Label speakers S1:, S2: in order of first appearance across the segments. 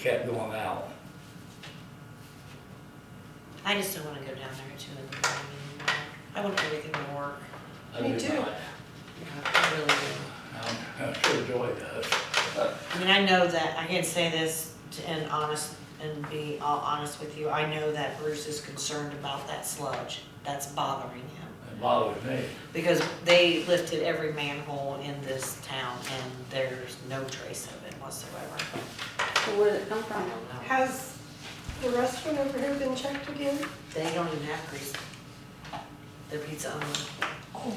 S1: kept going out.
S2: I just don't wanna go down there at two in the morning anymore. I want everything to work.
S1: I
S3: Me
S1: do
S3: too.
S1: not.
S2: I really do.
S1: I'm I'm sure Joy does.
S2: I mean, I know that, I can say this to- and honest, and be all honest with you, I know that Bruce is concerned about that sludge. That's bothering him.
S1: It bothers me.
S2: Because they lifted every manhole in this town and there's no trace of it whatsoever.
S3: So where did it come
S2: I
S3: from?
S2: don't know.
S4: Has the restaurant over here been checked again?
S2: They don't even have grease. They're pizza only.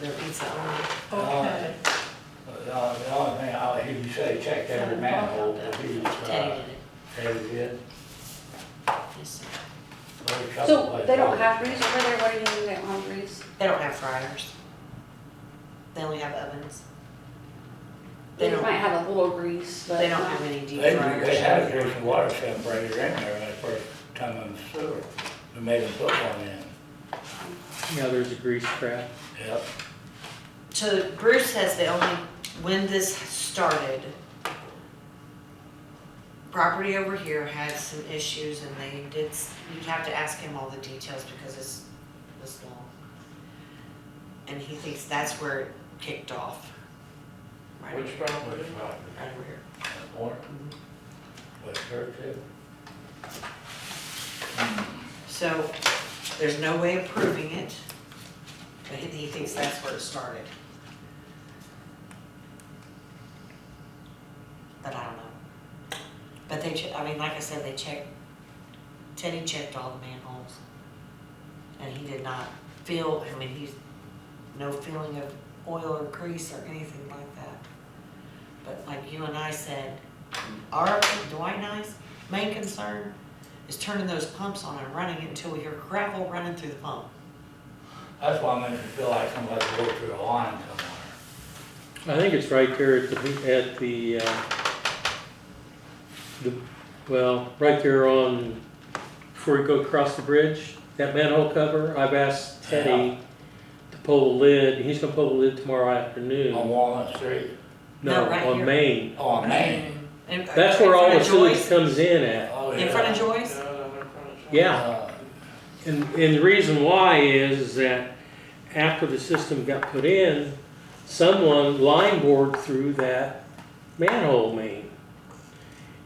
S2: They're pizza only.
S1: Okay. Uh, But The only the only thing I hear you say, check every manhole, would be,
S2: Teddy
S1: uh,
S2: did it.
S1: Teddy did.
S2: Yes.
S1: There's a couple
S3: So they don't
S1: places.
S3: have grease over there, what do you mean they don't have grease?
S2: They don't have fryers. They only have ovens. They
S3: might
S2: don't,
S3: have a little grease, but.
S2: they don't
S3: not-
S2: have any deep
S1: They,
S2: fryers.
S1: they had a drinking water separator in there when they first come in the sewer. We made them put one in.
S5: Yeah, there's a grease trap.
S1: Yep.
S2: So Bruce says the only, when this started, property over here had some issues and they did, s- you'd have to ask him all the details because it's this long. And he thinks that's where it kicked off. Right over-
S1: property? Which property?
S2: Right over here.
S1: Orton? West Church too?
S2: So there's no way of proving it, but he- he thinks that's where it started. But I don't know. But they, che- I mean, like I said, they checked, Teddy checked all the manholes. And he did not feel, I mean, he's, no feeling of oil or grease or anything like that. But like you and I said, our, Dwight and I's main concern is turning those pumps on and running it until we hear gravel running through the pump.
S1: That's why I makes me feel like somebody broke through a line somewhere.
S5: I think it's right there at the, at the, uh, the, well, right there on, before you go across the bridge, that manhole cover, I've asked Teddy to pull the lid, and he's gonna pull the lid tomorrow
S1: On
S5: afternoon.
S1: Walnut Street,
S5: No,
S2: No, right
S5: on
S2: here.
S5: Main.
S1: oh, on Main.
S2: In-
S5: That's
S2: uh, in
S5: where all
S2: front
S5: the
S2: of
S5: sewage
S2: Joyce?
S5: comes in at.
S1: Oh,
S2: In
S1: yeah.
S2: front of Joyce?
S5: Yeah,
S1: Uh,
S5: And, and the reason why is that after the system got put in, someone line bored through that manhole main.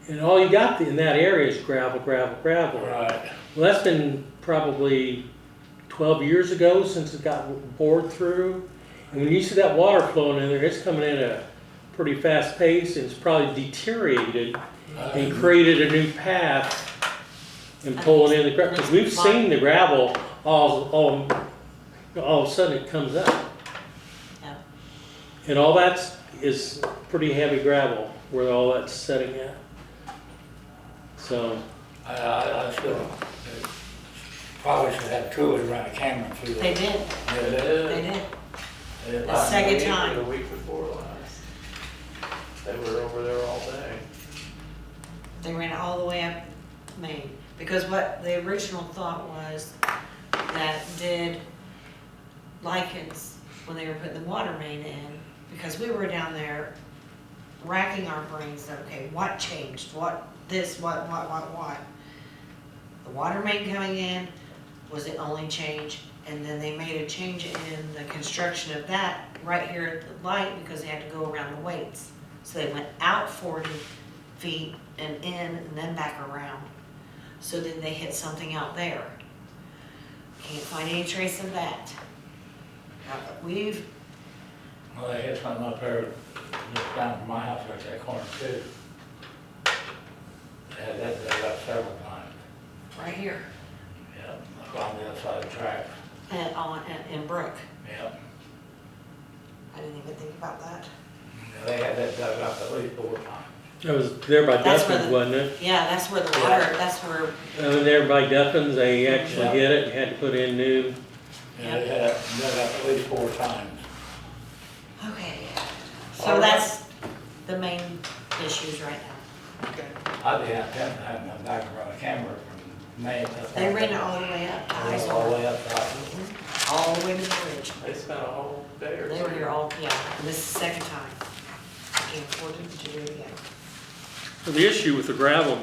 S5: And all you got in that area is gravel, gravel, gravel.
S1: Right,
S5: Well, that's been probably twelve years ago since it got bored through. And when you see that water flowing in there, it's coming in at a pretty fast pace and it's probably deteriorated and
S1: Uh,
S5: created a new path and pulling in the gravel, because we've seen the gravel, all, all, all of a sudden it comes up.
S2: Yeah.
S5: And all that's, is pretty heavy gravel where all that's setting at. So,
S1: I, I, I still, uh, probably should have truly run a camera through.
S2: They did, they did.
S1: did.
S2: The second time.
S6: The week before last. They were over there all day.
S2: They ran it all the way up Main, because what the original thought was that did lichens when they were putting the water main in, because we were down there racking our brains, okay, what changed, what this, what, what, what, what? The water main coming in was the only change, and then they made a change in the construction of that right here at the light, because they had to go around the weights. So they went out forty feet and in and then back around. So then they hit something out there. Can't find any trace of that. Uh, We've,
S1: Well, they had something up there, just down from my house, right that corner too. They had that, they got several times,
S2: right here,
S1: yep, up on the other side of the tracks,
S2: and on, and- and Brook,
S1: yep.
S2: I didn't even think about that.
S1: And They had that dug up at least four times.
S5: it was there by
S2: That's where
S5: Duffins,
S2: the-
S5: wasn't it?
S2: Yeah, that's where the water, that's where,
S5: I mean, there by Duffins, they actually
S1: Yeah.
S5: hit it and had to put in new,
S1: And they had that dug up at least four times.
S2: okay.
S6: All
S2: So
S6: right.
S2: that's the main issues right now.
S1: I'd be out there and have them back and run a camera from May. to-
S2: They ran it all the way up, to
S1: They ran it All the
S2: Heisler,
S1: way up, top.
S2: all the way to the bridge.
S6: They spent a whole day or two.
S2: They were here all, yeah, and this is the second time. I can't afford to do it again.
S5: The issue with the gravel